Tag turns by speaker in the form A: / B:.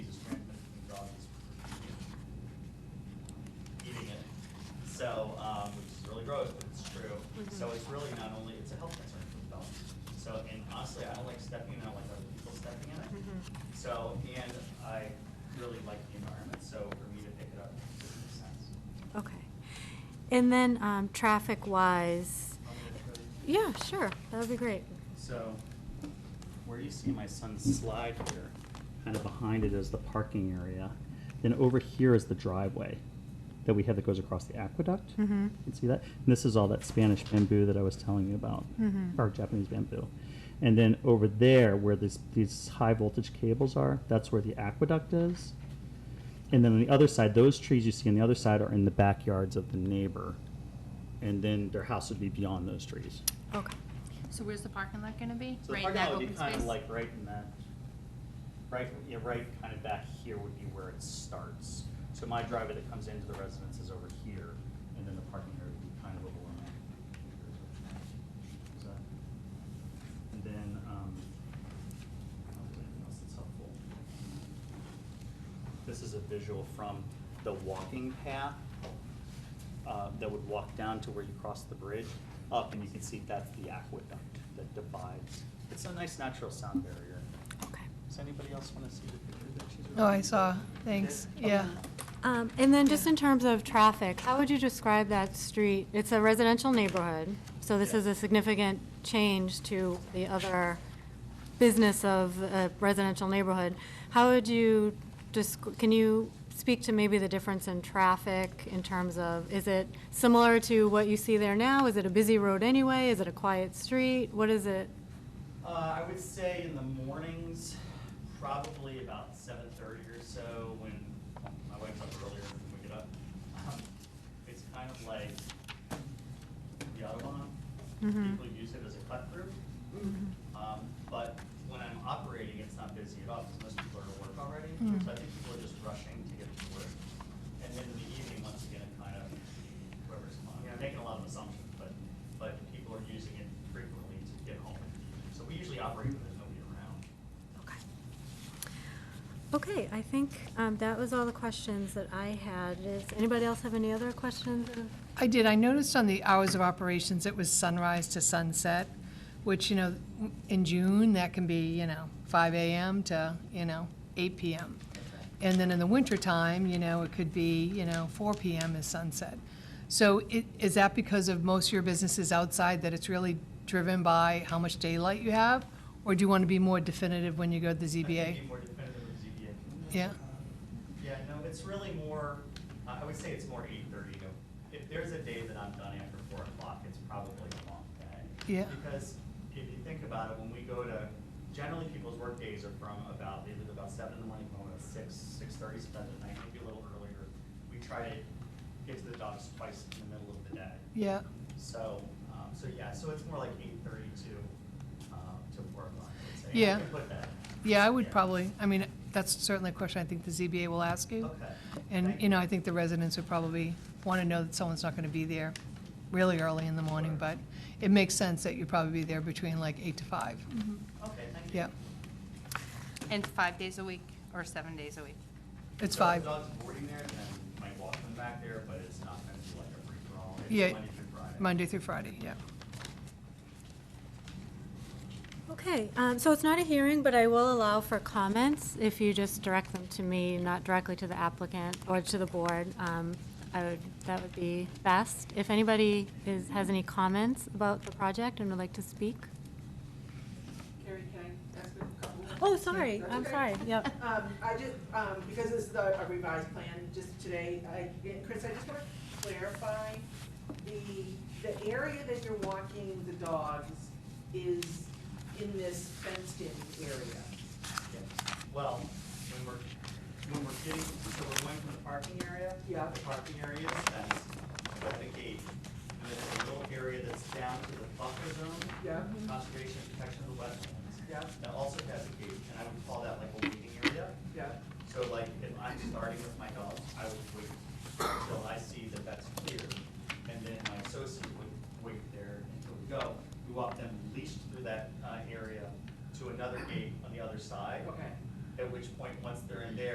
A: So, um, which is really gross, but it's true. So it's really not only, it's a health concern for the dogs. So, and honestly, I don't like stepping in, I don't like other people stepping in it. So, and I really like the environment, so for me to pick it up just makes sense.
B: Okay. And then, um, traffic-wise,
A: I'll give it to you.
B: yeah, sure, that would be great.
A: So, where you see my son's slide here,
C: kind of behind it is the parking area. Then over here is the driveway that we have that goes across the aqueduct.
B: Mhm.
C: You can see that? And this is all that Spanish bamboo that I was telling you about,
B: Mhm.
C: or Japanese bamboo. And then over there, where these these high voltage cables are, that's where the aqueduct is. And then on the other side, those trees you see on the other side are in the backyards of the neighbor. And then their house would be beyond those trees.
B: Okay.
D: So where's the parking lot gonna be?
C: So the
D: Right in
C: parking
D: that
C: lot would
D: open
C: be kind of
D: space?
C: like right in that, right, yeah, right kind of back here would be where it starts. So my driveway that comes into the residence is over here, and then the parking area would be kind of over on that. Is that- And then, um, I don't think anything else that's helpful. This is a visual from the walking path uh, that would walk down to where you cross the bridge up, and you can see that's the aqueduct that divides. It's a nice natural sound barrier.
B: Okay.
C: Does anybody else want to see the picture that she's?
E: Oh, I saw, thanks, yeah.
B: Um, and then just in terms of traffic, how would you describe that street? It's a residential neighborhood, so this
C: Yeah.
B: is a significant change to the other business of a residential neighborhood. How would you, desc- can you speak to maybe the difference in traffic in terms of, is it similar to what you see there now? Is it a busy road anyway? Is it a quiet street? What is it?
A: Uh, I would say in the mornings, probably about seven thirty or so, when my wife's up earlier than we get up. Um, It's kind of like the Autobahn.
B: Mhm.
A: People use it as a cut through. Um, but when I'm operating, it's not busy at all, because most people are at work already.
E: Mm.
A: So I think people are just rushing to get to work. And then in the evening, once again, it kind of, whoever's, on- I'm making a lot of assumptions, but, but people are using it frequently to get home. So we usually operate when there's nobody around.
B: Okay. Okay, I think um, that was all the questions that I had. Does anybody else have any other questions?
E: I did, I noticed on the hours of operations, it was sunrise to sunset, which, you know, in June, that can be, you know, five AM to, you know, eight PM. And then in the wintertime, you know, it could be, you know, four PM is sunset. So i- is that because of most of your businesses outside, that it's really driven by how much daylight you have? Or do you want to be more definitive when you go to the
A: I think
E: ZBA?
A: it'd be more definitive with ZBA.
E: Yeah.
A: Yeah, no, it's really more, I I would say it's more eight thirty to, if there's a day that I'm done after four o'clock, it's probably a long day.
E: Yeah.
A: Because if you think about it, when we go to, generally people's work days are from about, they leave about seven in the morning, going at six, six thirty, sometimes at night, maybe a little earlier. We try to get to the dogs twice in the middle of the day.
E: Yeah.
A: So, um, so yeah, so it's more like eight thirty to, um, to four o'clock, I would say. I
E: Yeah.
A: can put that.
E: Yeah, I would probably, I mean, that's certainly a question I think the ZBA will ask you.
A: Okay.
E: And, you know, I think the residents would probably want to know that someone's not going to be there really early in the morning, but it makes sense that you'd probably be there between like eight to five.
A: Okay, thank you.
E: Yeah,
D: And five days a week or seven days a week?
E: it's
A: So if
E: five.
A: the dog's boarding there, then you might walk them back there, but it's not gonna be like a free-for-all. It's
E: Yeah.
A: Monday through Friday.
E: Monday through Friday, yeah.
B: Okay, um, so it's not a hearing, but I will allow for comments if you just direct them to me, not directly to the applicant or to the board. Um, I would, that would be best. If anybody is, has any comments about the project and would like to speak?
F: Carrie, can I ask a couple?
B: Oh, sorry,
F: That's
B: I'm
F: okay.
B: sorry, yep.
F: Um, I just, um, because this is a a revised plan, just today, I, and Chris, I just want to clarify, the, the area that you're walking with the dogs is in this fenced-in area.
A: Yeah. Well, when we're, when we're getting, so we're going from the parking area.
F: Yeah.
A: The parking area is fenced, but the gate, and then there's a little area that's down to the buffer zone.
F: Yeah.
A: Conservation and protection of the wetlands.
F: Yeah.
A: That also has a gate, and I would call that like a waiting area.
F: Yeah,
A: So like, if I'm starting with my dog, I would wait until I see that that's clear, and then my associate would wait there until we go. We walk them leashed through that, uh, area to another gate on the other side.
F: okay.
A: At which point, once they're in there,